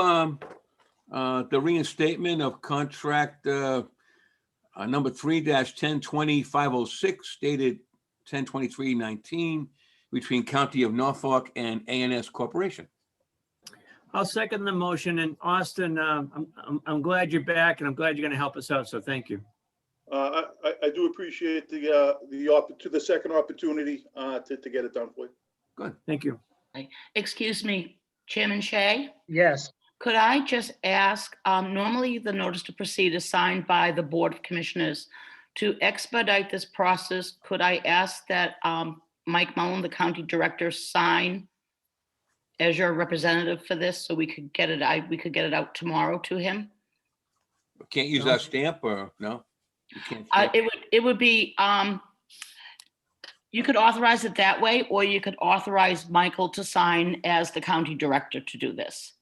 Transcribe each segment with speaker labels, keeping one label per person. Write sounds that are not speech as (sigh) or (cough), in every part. Speaker 1: um, uh, the reinstatement of contract, uh, uh, number three dash ten twenty five oh six dated ten twenty-three nineteen between County of Norfolk and ANS Corporation.
Speaker 2: I'll second the motion. And Austin, uh, I'm, I'm- I'm glad you're back and I'm glad you're going to help us out. So thank you.
Speaker 3: Uh, I, I, I do appreciate the, uh, the, opp- to the second opportunity, uh, to, to get it done for you.
Speaker 2: Thank you.
Speaker 4: Excuse me, Chairman Shay,
Speaker 5: Yes,
Speaker 4: could I just ask, um, normally the notice to proceed is signed by the Board of Commissioners. To expedite this process, could I ask that um, Mike Mullin, the County Director, sign as your representative for this, so we could get it, I, we could get it out tomorrow to him?
Speaker 1: Can't use our stamp or, no? You can't
Speaker 4: Uh,
Speaker 1: stamp?
Speaker 4: It would, it would be, um, you could authorize it that way, or you could authorize Michael to sign as the County Director to do this.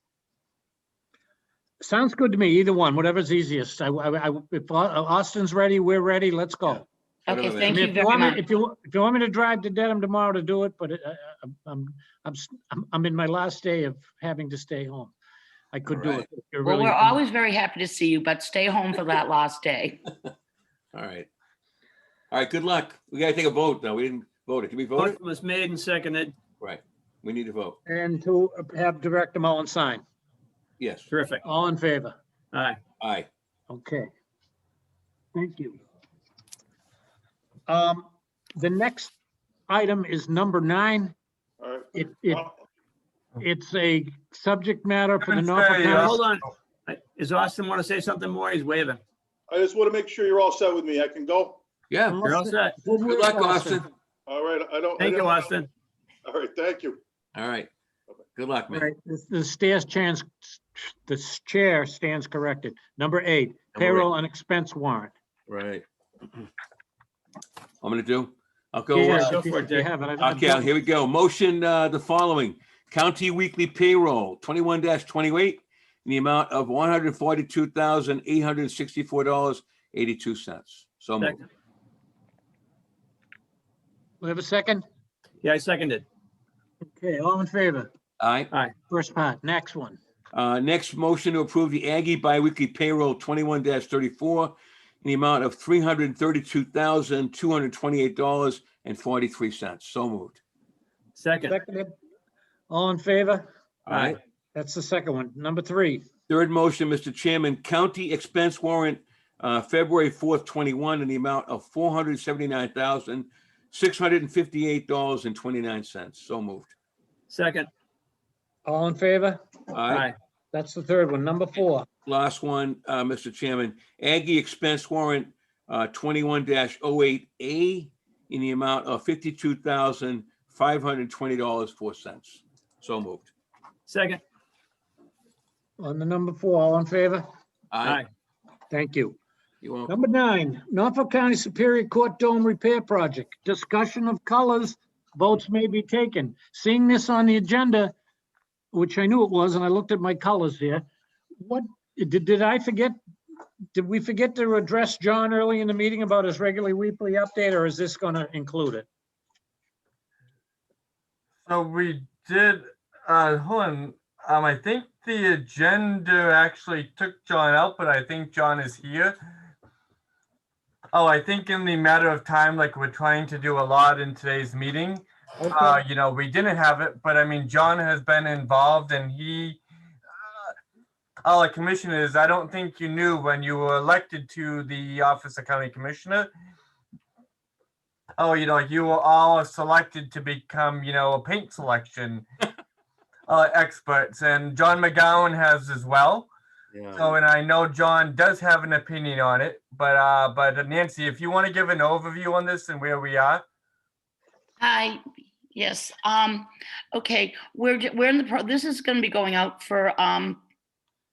Speaker 5: sounds good to me, either one, whatever's easiest. I, I, I- if Au- Austin's ready, we're ready, let's go.
Speaker 4: Okay,
Speaker 1: Whatever that
Speaker 5: I
Speaker 4: thank
Speaker 5: mean,
Speaker 4: you
Speaker 5: If you
Speaker 4: very
Speaker 5: want me,
Speaker 4: much.
Speaker 5: if you, if you want me to drive to Dedham tomorrow to do it, but it- I- I- I'm, I'm, s- I'm, I'm in my last day of having to stay home. I could do
Speaker 1: Alright.
Speaker 5: it. if you're
Speaker 4: Well,
Speaker 5: really-
Speaker 4: we're always very happy to see you, but stay home for that last day.
Speaker 1: All right. All right, good luck. We gotta take a vote, though. We didn't vote. it. Can we vote? it?
Speaker 2: Motion was made and seconded.
Speaker 1: Right. We need to vote.
Speaker 5: And to have Director Mullen sign.
Speaker 1: Yes.
Speaker 2: Terrific.
Speaker 5: All in favor?
Speaker 2: All right.
Speaker 1: Aye.
Speaker 5: Okay. Thank you. Um, the next item is number nine.
Speaker 3: All right.
Speaker 5: It, it,
Speaker 3: Uh,
Speaker 5: it's a subject matter for the
Speaker 6: Gonna
Speaker 5: Norfolk.
Speaker 6: say,
Speaker 5: County-
Speaker 6: uh,
Speaker 2: Hold on. I- Is Austin want to say something more? He's waving.
Speaker 3: I just want to make sure you're all set with me. I can go?
Speaker 1: Yeah.
Speaker 2: You're all set.
Speaker 1: Good luck, Austin.
Speaker 3: All right, I don't. I
Speaker 2: Thank you,
Speaker 3: don't-
Speaker 2: Austin.
Speaker 3: All right, thank you.
Speaker 1: All right. Good luck, man.
Speaker 5: Right, the- the stairs chance, the s- chair stands corrected. Number eight,
Speaker 1: eight.
Speaker 5: payroll and expense warrant.
Speaker 1: Right. (clears throat) I'm gonna do, I'll go. uh,
Speaker 5: Yeah,
Speaker 2: go
Speaker 5: if you-
Speaker 2: for it,
Speaker 5: if you
Speaker 2: Dick.
Speaker 5: have it, I- I-
Speaker 1: Okay, here we go. Motion, uh, the following, county weekly payroll, twenty-one twenty-eight, in the amount of one hundred forty-two thousand, eight hundred sixty-four dollars, eighty-two cents. So moved.
Speaker 2: Second.
Speaker 5: We have a second?
Speaker 2: Yeah, I seconded.
Speaker 5: Okay, all in favor?
Speaker 1: All right.
Speaker 5: First part, next one.
Speaker 1: Uh, next motion to approve the Aggie biweekly payroll, twenty-one thirty-four, in the amount of three hundred thirty-two thousand, two hundred twenty-eight dollars and forty-three cents. So moved.
Speaker 2: Second.
Speaker 5: Seconded. All in favor?
Speaker 1: All right.
Speaker 5: That's the second one. Number three,
Speaker 1: Third motion, Mr. Chairman, county expense warrant, uh, February fourth, twenty-one, in the amount of four hundred seventy-nine thousand, six hundred and fifty-eight dollars and twenty-nine cents. So moved.
Speaker 2: Second.
Speaker 5: all in favor?
Speaker 1: All
Speaker 2: All
Speaker 1: right,
Speaker 2: right.
Speaker 5: That's the third one. Number four,
Speaker 1: last one, uh, Mr. Chairman, Aggie expense warrant, uh, twenty-one 8 A in the amount of fifty-two thousand, five hundred twenty dollars, four cents. So moved.
Speaker 2: Second.
Speaker 5: on the number four, all in favor?
Speaker 2: All
Speaker 1: Aye.
Speaker 2: right.
Speaker 5: Thank you.
Speaker 1: You want,
Speaker 5: Number nine, Norfolk County Superior Court Dome Repair Project. Discussion of colors, votes may be taken. Seeing this on the agenda, which I knew it was, and I looked at my colors here. What, did, did I forget? Did we forget to address John early in the meeting about his regularly weekly update, or is this gonna include it?
Speaker 6: So we did, uh, hold on, um, I think the agenda actually took John out, but I think John is here. Oh, I think in the matter of time, like we're trying to do a lot in today's meeting, uh, you know, we didn't have it, but I mean, John has been involved and he, uh, all the commissioners, I don't think you knew when you were elected to the office of county commissioner, oh, you know, you were all selected to become, you know, a paint selection uh, experts, and John McGowan has as well.
Speaker 1: Oh.
Speaker 6: So, and I know John does have an opinion on it, but uh, but Nancy, if you want to give an overview on this and where we are,
Speaker 4: Hi, yes, um, okay, we're, j- we're in the, pro this is gonna be going out for, um,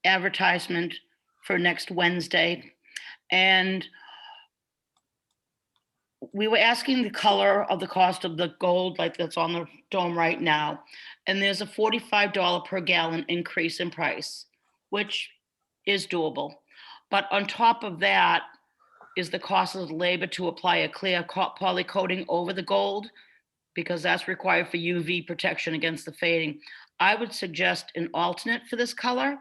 Speaker 4: advertisement for next Wednesday, and we were asking the color of the cost of the gold, like that's on the dome right now, and there's a forty-five dollar per gallon increase in price, which is doable. But on top of that is the cost of labor to apply a clear co- poly coating over the gold because that's required for UV protection against the fading. I would suggest an alternate for this color